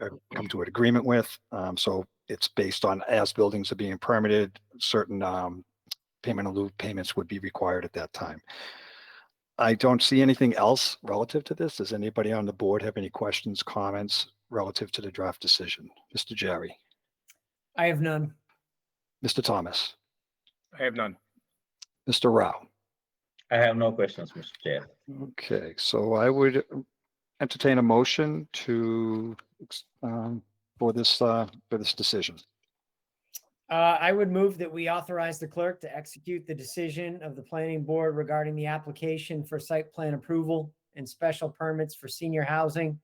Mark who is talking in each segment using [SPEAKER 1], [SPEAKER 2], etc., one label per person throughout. [SPEAKER 1] uh, come to an agreement with. Um, so it's based on as buildings are being permitted, certain, um, payment in lieu payments would be required at that time. I don't see anything else relative to this. Does anybody on the board have any questions, comments relative to the draft decision? Mr. Jerry,
[SPEAKER 2] I have none.
[SPEAKER 1] Mr. Thomas,
[SPEAKER 3] I have none.
[SPEAKER 1] Mr. Rao?
[SPEAKER 4] I have no questions, Mr. Chair.
[SPEAKER 1] Okay, so I would entertain a motion to, ex- um, for this, uh, for this decision.
[SPEAKER 2] Uh, I would move that we authorize the clerk to execute the decision of the planning board regarding the application for site plan approval and special permits for senior housing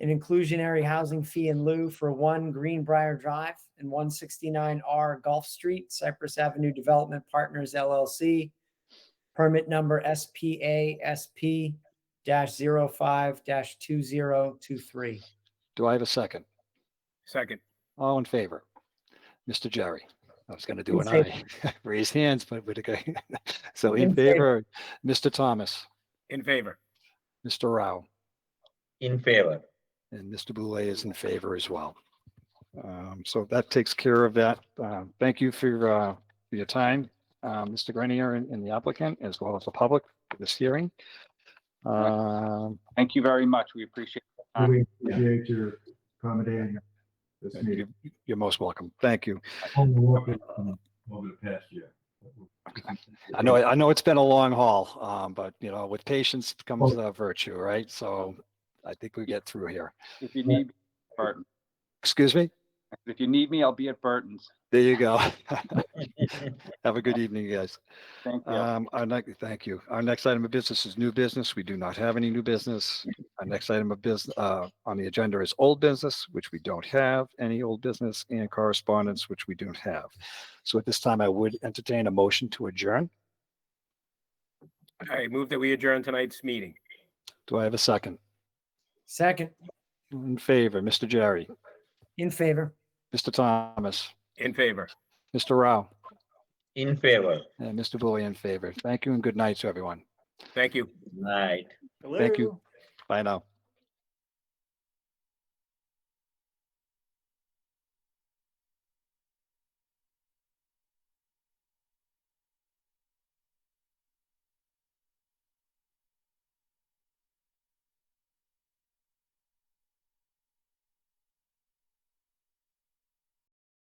[SPEAKER 2] and inclusionary housing fee in lieu for one Greenbrier Drive and one sixty-nine R Gulf Street, Cypress Avenue Development Partners LLC. Permit number SPA SP dash zero five dash two zero two three.
[SPEAKER 1] Do I have a second?
[SPEAKER 3] Second.
[SPEAKER 1] All in favor? Mr. Jerry, I was gonna do
[SPEAKER 2] In
[SPEAKER 1] an eye, raise hands, but we're going so in
[SPEAKER 2] In favor.
[SPEAKER 1] favor, Mr. Thomas,
[SPEAKER 3] In favor.
[SPEAKER 1] Mr. Rao,
[SPEAKER 4] In favor.
[SPEAKER 1] and Mr. Boulay is in favor as well. Um, so that takes care of that. Um, thank you for, your, uh, for your time, uh, Mr. Grenier and, and the applicant, as well as the public for this hearing. Um,
[SPEAKER 5] Thank you very much. We appreciate it. Um,
[SPEAKER 6] We appreciate your accommodating this meeting
[SPEAKER 1] you- you're most welcome. Thank you.
[SPEAKER 6] over the past year.
[SPEAKER 1] I know, I know it's been a long haul, um, but you know, with patience comes uh, virtue, right? So I think we get through here.
[SPEAKER 5] If you need, Burton,
[SPEAKER 1] Excuse me?
[SPEAKER 5] if you need me, I'll be at Burton's.
[SPEAKER 1] There you go. Have a good evening, guys.
[SPEAKER 5] Thank you.
[SPEAKER 1] Um, our next, thank you. Our next item of business is new business. We do not have any new business. Our next item of business, uh, on the agenda is old business, which we don't have any old business and correspondence, which we don't have. So at this time, I would entertain a motion to adjourn.
[SPEAKER 3] I move that we adjourn tonight's meeting.
[SPEAKER 1] Do I have a second?
[SPEAKER 2] Second,
[SPEAKER 1] In favor, Mr. Jerry,
[SPEAKER 2] in favor.
[SPEAKER 1] Mr. Thomas,
[SPEAKER 3] In favor.
[SPEAKER 1] Mr. Rao,
[SPEAKER 4] In favor.
[SPEAKER 1] and Mr. Bowie in favor. Thank you and good night to everyone.
[SPEAKER 3] Thank you.
[SPEAKER 4] Right.
[SPEAKER 1] Thank you. Bye now.